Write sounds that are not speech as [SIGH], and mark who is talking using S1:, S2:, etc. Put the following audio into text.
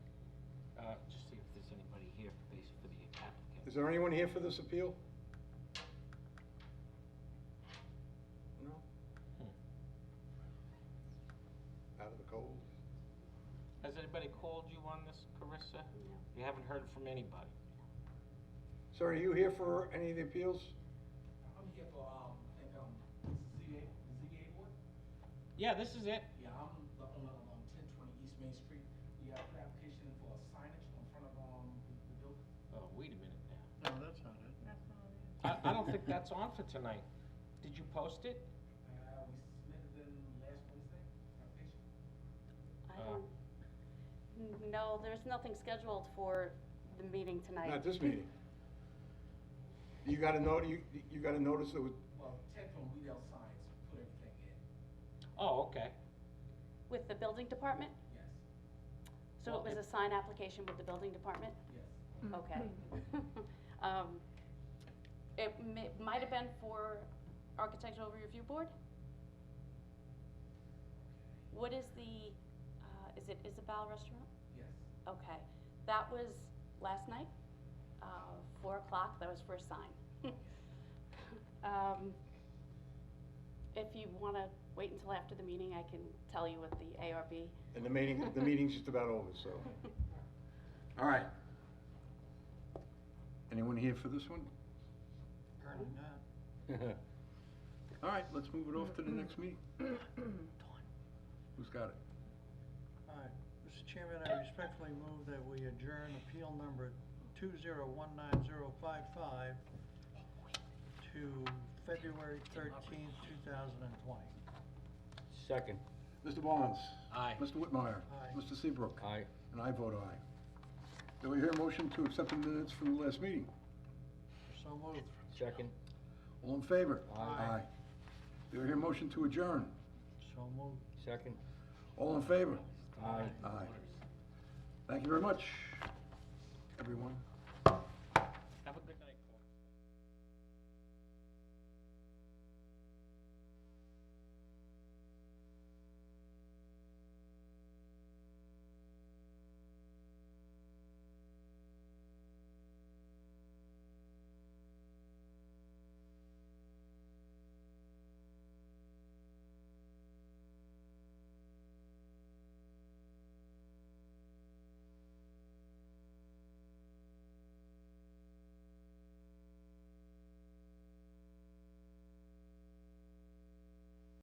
S1: Uh,
S2: Is there anyone here for this appeal? No? Hmm. Out of the cold?
S1: Has anybody called you on this, Carissa?
S3: No.
S1: You haven't heard from anybody?
S2: Sir, are you here for any of the appeals?
S4: I'm here for, um, I think, um, ZA, ZA board?
S1: Yeah, this is it.
S4: Yeah, I'm the owner of, um, ten twenty East Main Street. We have an application for signage in front of, um, the building.
S1: Oh, wait a minute now.
S5: No, that's not it.
S1: I, I don't think that's on for tonight. Did you post it?
S4: Uh, we submitted them last Wednesday, application.
S3: I
S1: Uh,
S3: don't, n- no, there's nothing scheduled for the meeting tonight.
S2: Not this meeting. You got a note, you, you got a notice that was,
S4: Well, Ted from Weedell Science put everything in,
S1: Oh, okay.
S3: With the building department?
S4: yes,
S3: So
S1: Well,
S3: it was a sign application with the building department?
S4: yes.
S3: Okay. [LAUGHS] Um, It may, might have been for architectural review board? What is the, uh, is it Isabel Restaurant?
S4: Yes,
S3: Okay, that was last night, uh, four o'clock, that was for a sign. [LAUGHS] Um, If you wanna wait until after the meeting, I can tell you what the [COUGHS] ARB,
S2: and the meeting, the meeting's just about over, so. All right. Anyone here for this [LAUGHS] one?
S5: Apparently not.
S2: All right, let's move it off to the next meeting. Who's got it?
S5: All right, Mr. Chairman, I respectfully move that we adjourn appeal number two zero one nine zero five five to February thirteenth, two thousand and twenty.
S6: Second.
S2: Mr. Barnes?
S1: Aye.
S2: Mr. Whitmire?
S5: Aye.
S2: Mr. Seabrook?
S6: Aye.
S2: And I vote aye. Do we hear a motion to accept the minutes from the last meeting?
S5: So moved.
S6: Second.
S2: All in favor?
S6: Aye.
S2: Do we hear a motion to adjourn?
S5: So moved.
S6: Second.
S2: All in favor?
S6: Aye.
S2: Aye. Thank you very much, everyone.